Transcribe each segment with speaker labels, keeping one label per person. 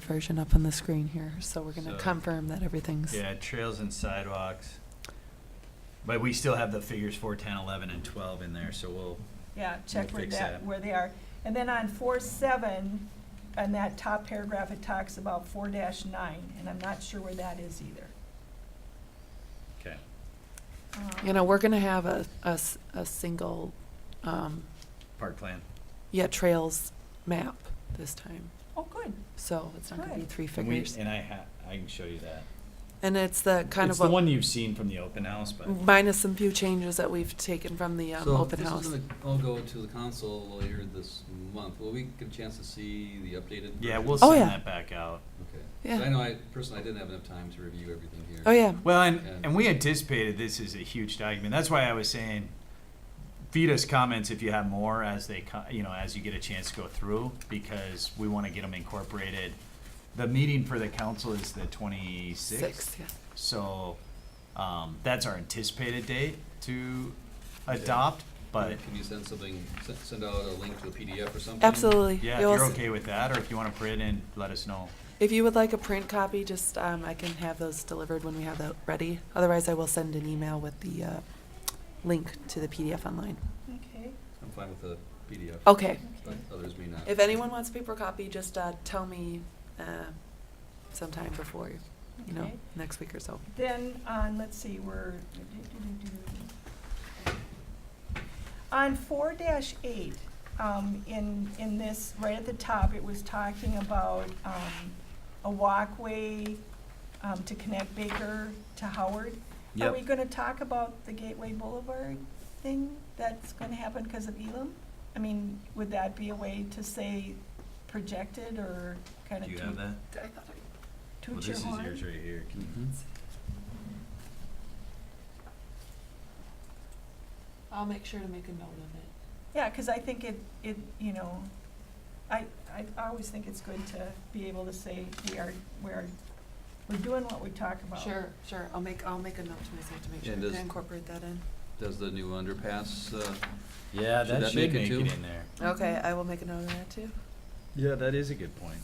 Speaker 1: version up on the screen here, so we're gonna
Speaker 2: So-
Speaker 1: confirm that everything's.
Speaker 2: Yeah, trails and sidewalks. But we still have the figures four, ten, eleven, and twelve in there, so we'll,
Speaker 3: Yeah, check where
Speaker 2: fix
Speaker 3: that,
Speaker 2: that.
Speaker 3: where they are. And then on four seven, on that top paragraph, it talks about four dash nine, and I'm not sure where that is either.
Speaker 2: okay.
Speaker 3: Um,
Speaker 1: You know, we're gonna have a, a s- a single, um,
Speaker 2: Park plan.
Speaker 1: yeah, trails map this time,
Speaker 3: Oh, good.
Speaker 1: so it's not gonna be
Speaker 3: Good.
Speaker 1: three
Speaker 2: And we,
Speaker 1: figures.
Speaker 2: and I ha, I can show you that.
Speaker 1: And it's the kind
Speaker 2: It's
Speaker 1: of, Mm-hmm.
Speaker 2: the
Speaker 1: what-
Speaker 2: one you've seen from the open house, but
Speaker 1: minus some few changes that we've taken from the um,
Speaker 4: So
Speaker 1: open house.
Speaker 4: This is gonna all go to the council later this month. Will we get a chance to see the updated?
Speaker 2: yeah,
Speaker 4: version?
Speaker 2: we'll
Speaker 1: Oh,
Speaker 2: send
Speaker 1: yeah.
Speaker 2: that back out.
Speaker 4: Okay. 'Cause
Speaker 1: Yeah.
Speaker 4: I know I, personally, I didn't have enough time to review everything here.
Speaker 1: Oh, yeah,
Speaker 2: Well, and,
Speaker 4: Yeah.
Speaker 2: and we anticipated this is a huge document. That's why I was saying, feed us comments if you have more as they, co- you know, as you get a chance to go through, because we want to get them incorporated. The meeting for the council is the twenty-sixth.
Speaker 1: six, yeah.
Speaker 2: So um, that's our anticipated date to adopt, but
Speaker 4: Can you send something, se- send out a link to a PDF or something?
Speaker 1: Absolutely.
Speaker 2: yeah, if
Speaker 1: You'll
Speaker 2: you're
Speaker 1: s-
Speaker 2: okay with that, or if you want to print in, let us know.
Speaker 1: If you would like a print copy, just, um, I can have those delivered when we have that ready. Otherwise, I will send an email with the, uh, link to the PDF online.
Speaker 3: Okay.
Speaker 4: I'm fine with the PDF.
Speaker 1: Okay,
Speaker 4: But others may not.
Speaker 1: if anyone wants a paper copy, just, uh, tell me, uh, sometime before, you know,
Speaker 3: Okay.
Speaker 1: next week or so.
Speaker 3: Then on, let's see, we're. On four dash eight, um, in, in this, right at the top, it was talking about, um, a walkway, um, to connect Baker to Howard. Are we gonna talk about the Gateway Boulevard thing that's gonna happen because of Elam? I mean, would that be a way to say projected or kind of
Speaker 2: Do
Speaker 3: toot
Speaker 2: you have that? Well,
Speaker 3: toot
Speaker 2: this
Speaker 3: your
Speaker 2: is
Speaker 3: horn?
Speaker 2: yours right here. Can you-
Speaker 4: Mm-hmm.
Speaker 1: I'll make sure to make a note of it.
Speaker 3: Yeah, because I think it, it, you know, I, I I always think it's good to be able to say we are, we're, we're doing what we talk about.
Speaker 1: Sure, sure, I'll make, I'll make a note to myself to make
Speaker 4: Yeah,
Speaker 1: sure
Speaker 4: and
Speaker 1: to
Speaker 4: does-
Speaker 1: incorporate that in.
Speaker 4: Does the new underpass, uh,
Speaker 2: Yeah,
Speaker 4: Should
Speaker 2: that
Speaker 4: that
Speaker 2: should
Speaker 4: make
Speaker 2: make
Speaker 4: it
Speaker 2: it
Speaker 4: too?
Speaker 2: in there.
Speaker 1: Okay, I will make a note of that too.
Speaker 2: Yeah, that is a good point.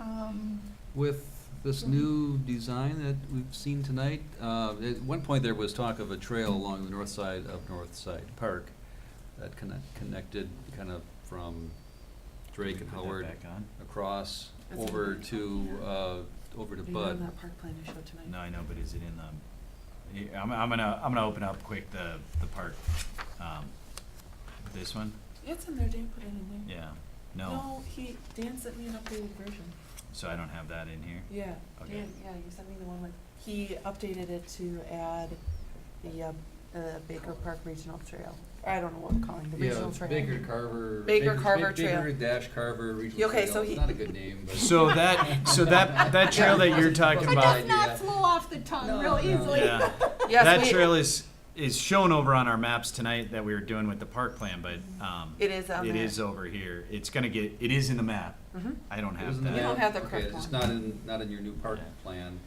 Speaker 3: Um,
Speaker 4: with this
Speaker 1: Mm-hmm.
Speaker 3: Mhm.
Speaker 4: new design that we've seen tonight, uh, at one point there was talk of a trail along the north side of North Side Park that connect, connected kind of from Drake and Howard
Speaker 2: Back on?
Speaker 4: across
Speaker 1: That's what
Speaker 4: over
Speaker 1: we talked
Speaker 4: to, uh, over to
Speaker 1: Are you on
Speaker 4: Bud.
Speaker 1: that park plan you showed tonight?
Speaker 2: No, I know, but is it in the, yeah, I'm, I'm gonna, I'm gonna open up quick the, the part. um, This one?
Speaker 1: It's in there, Dan put it in there.
Speaker 2: Yeah, no,
Speaker 1: No, he, Dan sent me an updated version.
Speaker 2: so I don't have that in here.
Speaker 1: Yeah,
Speaker 2: Okay.
Speaker 1: Dan, yeah, you sent me the one with, he updated it to add the, um, uh, Baker Park Regional Trail. I don't know what I'm calling the regional trail.
Speaker 4: Baker Carver.
Speaker 1: Baker Baker- Carver Ba- Trail.
Speaker 4: Baker
Speaker 1: Baker
Speaker 4: dash Carver
Speaker 1: Regional Okay, Trail. so It's he-
Speaker 4: not
Speaker 1: not
Speaker 4: a
Speaker 1: a
Speaker 4: good name, but.
Speaker 2: So that, so that, that trail that you're talking
Speaker 4: But
Speaker 2: about.
Speaker 4: that's not
Speaker 3: flow off the tongue
Speaker 4: real easily.
Speaker 2: Yeah, that
Speaker 1: Yes, we,
Speaker 2: trail is, is shown over on our maps tonight that we were doing with the park plan, but, um,
Speaker 1: it is on there.
Speaker 2: it is over here. It's gonna get, it is in the map.
Speaker 1: Mhm.
Speaker 2: I don't
Speaker 4: It was
Speaker 2: have
Speaker 4: in the
Speaker 1: You
Speaker 2: that.
Speaker 1: don't
Speaker 4: map?
Speaker 1: have the
Speaker 4: Okay,
Speaker 1: correct
Speaker 4: It's
Speaker 1: one.
Speaker 4: not in, not in your new park
Speaker 2: Yeah.
Speaker 4: plan,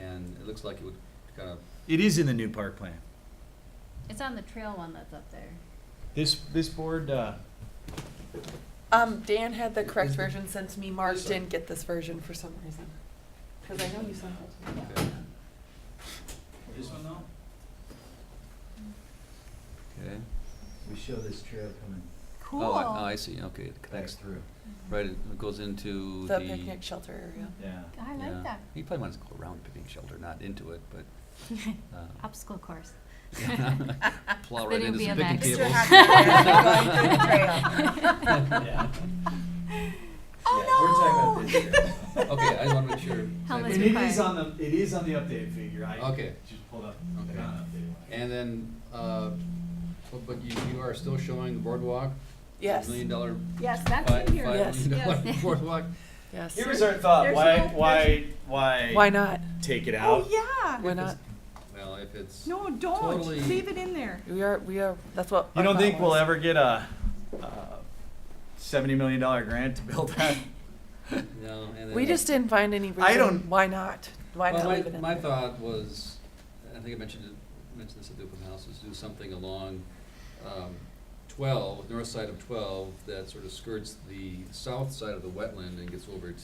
Speaker 4: and it looks like it would kind of,
Speaker 2: It is in the new park plan.
Speaker 5: It's on the trail one that's up there.
Speaker 2: This, this board, uh,
Speaker 1: Um, Dan had the correct
Speaker 4: Is the-
Speaker 1: version sent to me, Mark
Speaker 4: Yes, sir.
Speaker 1: didn't get this version for some reason. Cause I know you sent it to me.
Speaker 4: okay,
Speaker 2: this one though?
Speaker 4: okay.
Speaker 6: We show this trail coming
Speaker 3: Cool.
Speaker 4: Oh, I- oh, I see, okay, it
Speaker 6: back
Speaker 4: connects,
Speaker 6: through.
Speaker 4: right, it goes into the.
Speaker 1: The picnic shelter area.
Speaker 2: Yeah.
Speaker 5: I
Speaker 4: yeah.
Speaker 5: like that.
Speaker 4: You probably want to go around picnic shelter, not into it, but, uh,
Speaker 5: Obstacle course.
Speaker 4: plow right
Speaker 5: Spinning
Speaker 4: into some picnic
Speaker 5: BMX.
Speaker 4: tables.
Speaker 5: Mr.
Speaker 2: Yeah.
Speaker 3: Oh, no!
Speaker 4: Okay, I want to make sure.
Speaker 5: Helmet.
Speaker 2: It
Speaker 5: It
Speaker 2: is
Speaker 5: is
Speaker 2: on the, it is on the update figure. I
Speaker 4: Okay.
Speaker 2: just pulled up.
Speaker 4: Okay.
Speaker 2: the updated one.
Speaker 4: And then, uh, but- but you, you are still showing the boardwalk?
Speaker 1: Yes,
Speaker 4: Million dollar,
Speaker 3: Yes,
Speaker 4: fi-
Speaker 3: that's
Speaker 4: five
Speaker 3: in here.
Speaker 1: Yes.
Speaker 4: million dollar
Speaker 5: Yes.
Speaker 4: boardwalk?
Speaker 1: yes.
Speaker 2: Here was our thought,
Speaker 3: There's
Speaker 2: why,
Speaker 3: no-
Speaker 2: why, why?
Speaker 1: Why not?
Speaker 2: Take it
Speaker 3: Oh,
Speaker 2: out?
Speaker 3: yeah.
Speaker 1: Why not?
Speaker 4: Well, if it's.
Speaker 3: No, don't.
Speaker 4: Totally.
Speaker 3: Leave it in there.
Speaker 1: We are, we are, that's what.
Speaker 2: You
Speaker 1: our
Speaker 2: don't
Speaker 1: thought
Speaker 2: think we'll
Speaker 1: was.
Speaker 2: ever get a, uh, seventy million dollar grant to build that?
Speaker 4: No, and then.
Speaker 1: We just didn't find any reason.
Speaker 2: I don't-
Speaker 1: Why not? Why
Speaker 4: Well,
Speaker 1: not
Speaker 4: my-
Speaker 1: leave it in
Speaker 4: My
Speaker 1: there?
Speaker 4: thought was, I think I mentioned it, mentioned this at the open house, is do something along, um, twelve, north side of twelve, that sort of skirts the south side of the wetland and gets over